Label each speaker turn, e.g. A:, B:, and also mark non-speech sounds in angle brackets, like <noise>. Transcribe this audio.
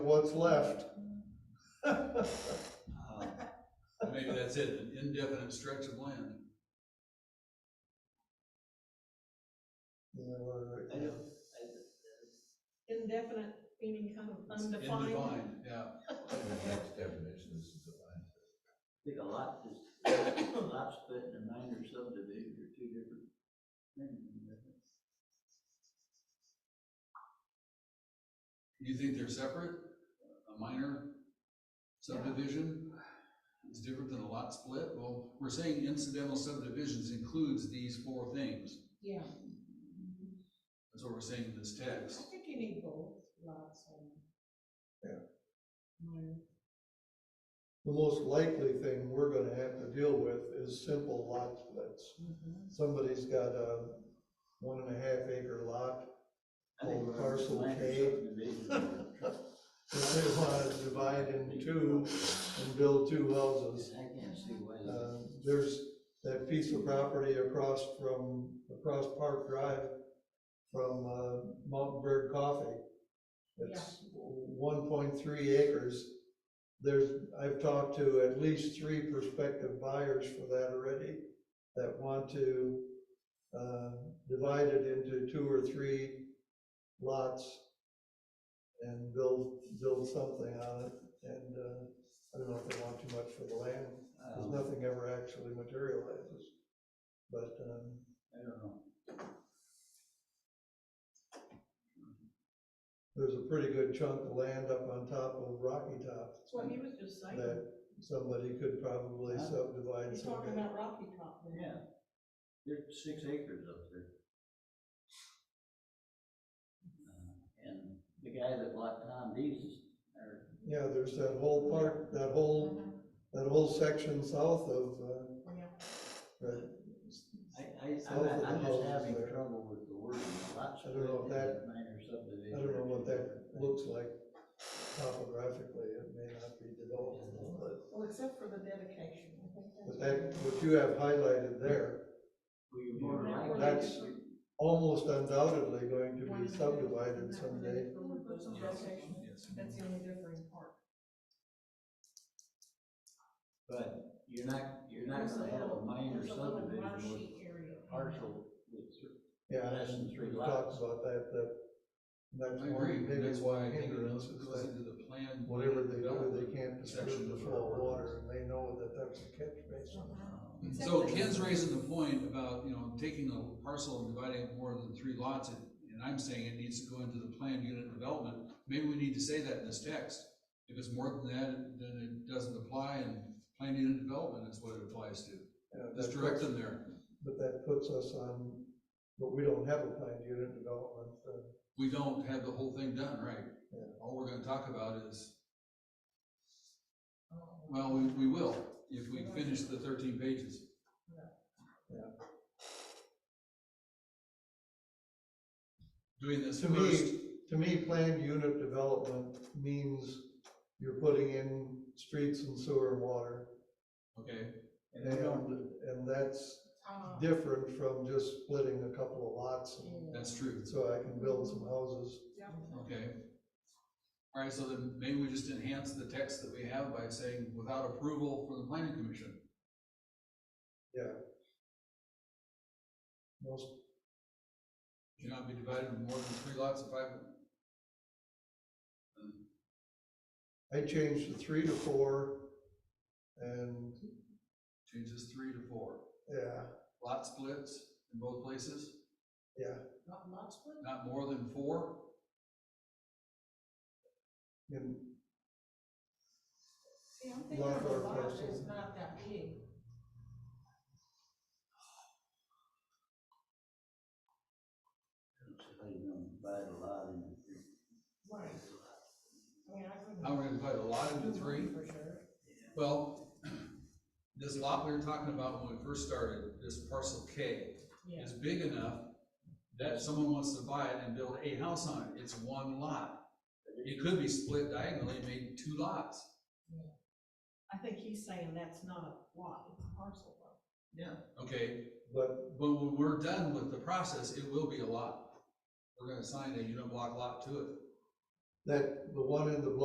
A: what's left.
B: Uh, Maybe that's it, an indefinite stretch of land.
A: Yeah, we're-
C: I know.
D: indefinite, meaning kind of
B: It's
D: undefined.
B: Indefined, yeah.
E: The next definition is defined.
C: Think a lot, just, <coughs> a lot split in a minor subdivision are two different things.
B: You think they're separate? A minor subdivision is different than a lot split? Well, we're saying incidental subdivisions includes these four things.
D: Yeah,
B: That's what we're saying in this
D: I
B: text.
D: think you need both lots and.
A: Yeah.
D: Minor.
A: The most likely thing we're gonna have to deal with is simple lot splits.
D: mm-hmm.
A: Somebody's got a one and a half acre lot,
C: I think
A: Well, parcel
C: minor
A: K. <laughs>
C: subdivision are-
A: that they wanna divide in two and build two houses.
C: I can't see why.
A: Uh, There's that piece of property across from, across Park Drive from uh, Mountain Bird Coffee. It's one point three acres. There's, I've talked to at least three prospective buyers for that already that want to uh, divide it into two or three lots and build, build something on it. And uh, I don't know if they want too much for the land
C: I
A: because
C: don't-
A: nothing ever actually materializes. But, um,
C: I don't know.
A: there's a pretty good chunk of land up on top of Rocky Top
D: That's what he was just saying.
A: that somebody could probably
C: Huh?
A: subdivide
D: He's
A: some.
D: talking about Rocky Top. there.
C: Yeah. There's six acres up there. Uh, And the guy that bought Tom D's, or,
A: Yeah, there's that whole part, that whole,
D: Mhm,
A: that whole section south of, uh,
D: Yeah.
A: right.
C: I, I,
A: South of
C: I'm,
A: the
C: I'm
A: house
C: just
A: is
C: having
A: there.
C: trouble with the word, lots
A: I
C: of
A: don't know if that-
C: minor subdivision.
A: I don't know
C: are
A: what
C: two
A: that
C: different things.
A: looks like topographically, it may not be developed, but,
D: Well, except for the dedication. I think that's-
A: but that, what you have highlighted there,
C: Well, you're more
D: Yeah,
C: likely-
A: that's almost undoubtedly going to
D: One
A: be
D: and a half.
A: subdivided someday.
D: Put some
B: Yes,
D: dedication.
B: yes.
D: That's the only differing part.
C: But you're not, you're not
D: There's a
C: gonna have a
D: little- Uh-huh.
C: minor
D: there's a little
C: subdivision with
D: marshy area.
C: partial, with cer-
A: Yeah,
C: Less than
A: and
C: three
A: we talked
C: lots.
A: about that, that.
B: I
A: That's
B: agree,
A: one, maybe
B: that's why I
A: one
B: think it
A: hindrance
B: goes
A: is that
B: into the plan.
A: whatever they do,
B: development
A: they can't
B: section
A: disturb the
B: of
A: flow
B: our
A: of
B: ordinance.
A: water, and they know that that's a catch basin.
D: Uh-huh.
B: Um, So Ken's raising the point about, you know, taking a parcel and dividing it more than three lots, and and I'm saying it needs to go into the planned unit development. Maybe we need to say that in this text. If it's more than that, then it doesn't apply, and planned unit development is what it applies to.
A: Yeah, that
B: Just direct
A: puts-
B: them there.
A: But that puts us on, but we don't have a planned unit development, uh,
B: We don't have the whole thing done, right?
A: Yeah.
B: All we're gonna talk about is, well, we, we will, if we finish the thirteen pages.
A: Yeah.
B: Doing this
A: To
B: first,
A: me, to me, planned unit development means you're putting in streets and sewer and water.
B: okay,
C: and they don't
A: And, and that's
D: Uh,
A: different from just splitting a couple of lots, and
D: yeah.
B: that's true,
A: so I can build some houses.
B: okay. All right, so then maybe we just enhance the text that we have by saying, without approval from the planning commission.
A: Most,
B: Should not be divided into more than three lots of five.
A: I changed the three to four, and,
B: Changes three to four.
A: yeah,
B: Lot splits in both places,
A: yeah,
D: Not lot split?
B: not more than four.
A: and
D: See, I'm thinking
A: Lot
D: of a
A: or
D: lot
A: parcel.
D: is not that big.
C: So you don't buy a lot in your-
D: Right. I mean, I couldn't.
B: Now we're gonna divide a lot into three.
D: For sure.
B: Well, this lot we were talking about when we first started, this parcel K,
D: Yeah.
B: is big enough that someone wants to buy it and build a house on it. It's one lot. It could be split diagonally, made two lots.
D: I think he's saying that's not a lot, it's a parcel though.
B: Okay,
A: But
B: but when we're done with the process, it will be a lot. We're gonna assign a unit block lot to it.
A: that, the one in the block